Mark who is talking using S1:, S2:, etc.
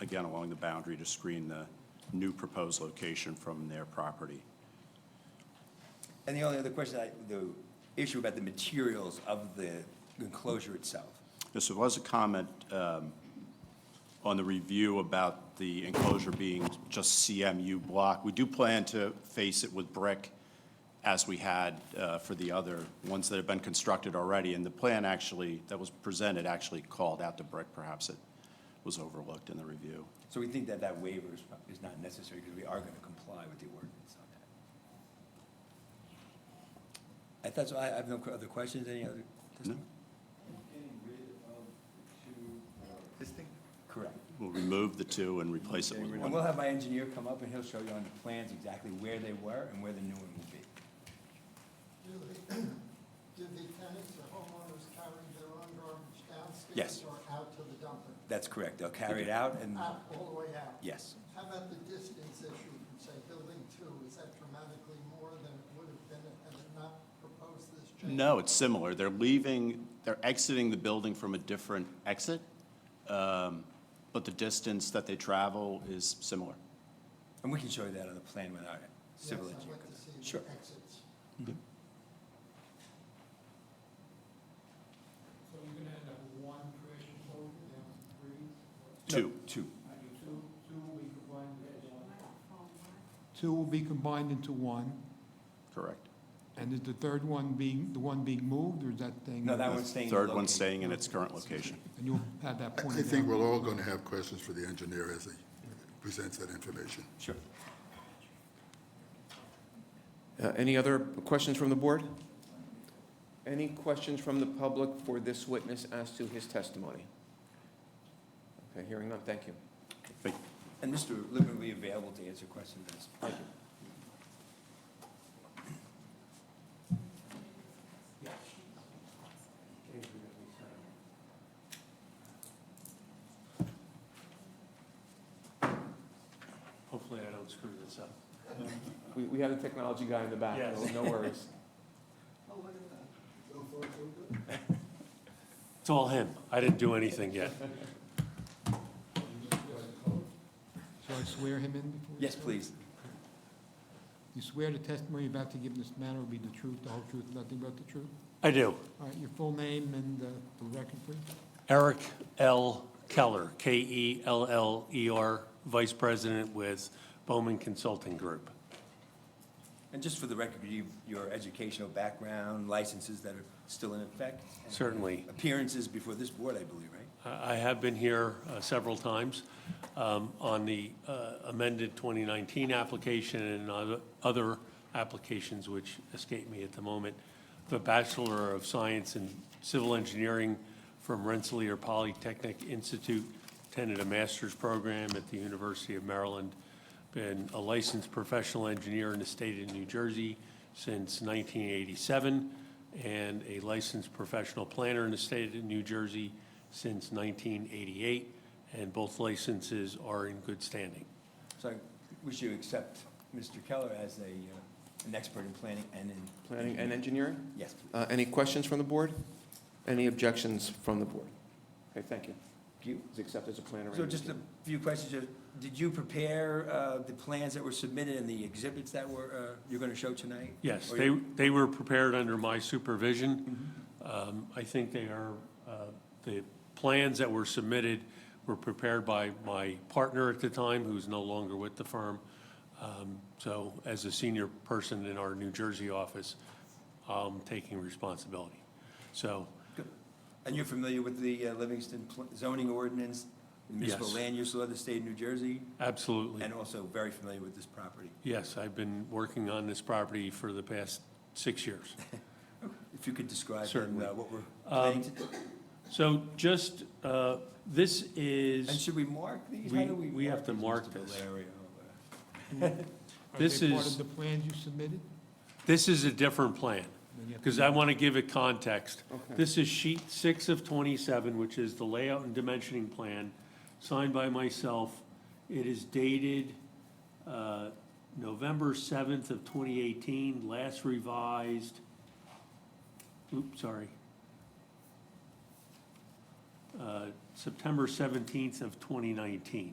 S1: again, along the boundary to screen the new proposed location from their property.
S2: And the only other question, I- the issue about the materials of the enclosure itself.
S1: Yes, there was a comment um, on the review about the enclosure being just CMU block. We do plan to face it with brick as we had uh, for the other ones that have been constructed already. And the plan actually, that was presented, actually called out the brick. Perhaps it was overlooked in the review.
S2: So we think that that waiver is prob- is not necessary because we are going to comply with the ordinance on that. I thought, so I I have no que- other questions, any other?
S1: No.
S3: Getting rid of the two. Existing?
S2: Correct.
S1: We'll remove the two and replace it with
S2: And
S1: one.
S2: we'll have my engineer come up and he'll show you on the plans exactly where they were and where the new one will be.
S4: Do the, do the tenants or homeowners carry their own garbage downstairs?
S2: Yes. Mm-hmm.
S4: Or out to the dumpster?
S2: That's correct, they'll carry it out and,
S4: Out, all the way out?
S2: yes.
S4: How about the distance issue from, say, building two? Is that dramatically more than it would have been had it not proposed this change?
S1: No, it's similar. They're leaving, they're exiting the building from a different exit, um, but the distance that they travel is similar.
S2: And we can show you that on the plan with our civil
S4: Yes, I'd
S2: engineer.
S4: like to see
S2: Sure.
S4: the exits.
S5: So you're gonna end up with one trash disposal, down to three,
S2: No,
S1: Two.
S2: Two.
S5: I do two, two will be combined into one. Two will be combined into one,
S1: Correct.
S5: and is the third one being, the one being moved, or is that thing?
S2: No, that one's staying.
S1: Third
S2: located.
S1: one's staying in its current location.
S5: And you'll have that
S6: I
S5: point.
S6: think we're all going to have questions for the engineer as he presents that information.
S2: Sure.
S7: Uh, Any other questions from the board? Any questions from the public for this witness as to his testimony? Okay, hearing none, thank you.
S1: Thank you.
S2: And Mr. Lippman will be available to answer questions as
S7: Thank you.
S8: Hopefully I don't screw this up.
S7: We, we had a technology guy in the back, so
S8: Yes.
S7: Uh, no worries.
S8: It's all him. I didn't do anything yet.
S5: Shall I swear him in before? we
S2: Yes,
S5: start?
S2: please.
S5: You swear the testimony you're about to give in this matter will be the truth, the whole truth, nothing but the truth?
S8: I do.
S5: All right, your full name and uh, for the record, please.
S8: Eric L. Keller, E K-E-L-L-E-R, Vice President with Bowman Consulting Group.
S2: And just for the record, you- your educational background, licenses that are still in effect? and
S8: Certainly.
S2: Appearances before this board, I believe, right?
S8: I I have been here uh, several times um, on the uh, amended 2019 application and other- other applications which escape me at the moment. The Bachelor of Science in Civil Engineering from Rensselaer Polytechnic Institute, attended a master's program at the University of Maryland, been a licensed professional engineer in the state of New Jersey since 1987, and a licensed professional planner in the state of New Jersey since 1988, and both licenses are in good standing.
S2: So I wish you accept Mr. Keller as a, uh, an expert in planning and in.
S7: Planning and engineering?
S2: Yes, please.
S7: Uh, Any questions from the board? Any objections from the board? Okay, thank you. You is accepted as a planner.
S2: So
S7: and
S2: just a
S7: engineer.
S2: few questions. Uh, Did you prepare uh, the plans that were submitted and the exhibits that were, uh, you're going to show tonight?
S8: Yes,
S2: Or
S8: they,
S2: you-
S8: they were prepared under my supervision.
S2: Mm-hmm.
S8: Um, I think they are, uh, the plans that were submitted were prepared by my partner at the time, who's no longer with the firm. Um, So as a senior person in our New Jersey office, I'm taking responsibility. So,
S2: And you're familiar with the uh, Livingston pl- zoning ordinance, municipal
S8: Yes.
S2: land use law of the state of New Jersey,
S8: absolutely.
S2: and also very familiar with this property?
S8: Yes, I've been working on this property for the past six years.
S2: If you could describe then,
S8: Certainly. Um,
S2: uh, what we're planning to do.
S8: So just, uh, this
S2: And
S8: is,
S2: should we mark these? How
S8: we-
S2: do
S8: we have to mark
S2: these, Mr.
S8: this.
S2: Valerio?
S8: This
S5: Are they part
S8: is-
S5: of the plans you submitted?
S8: this is a different plan,
S5: Then you have to-
S8: because I want to give it context.
S7: Okay.
S8: This is sheet six of 27, which is the layout and dimensioning plan, signed by myself. It is dated uh, November 7th of 2018, last revised, oops, sorry, uh, September 17th of 2019.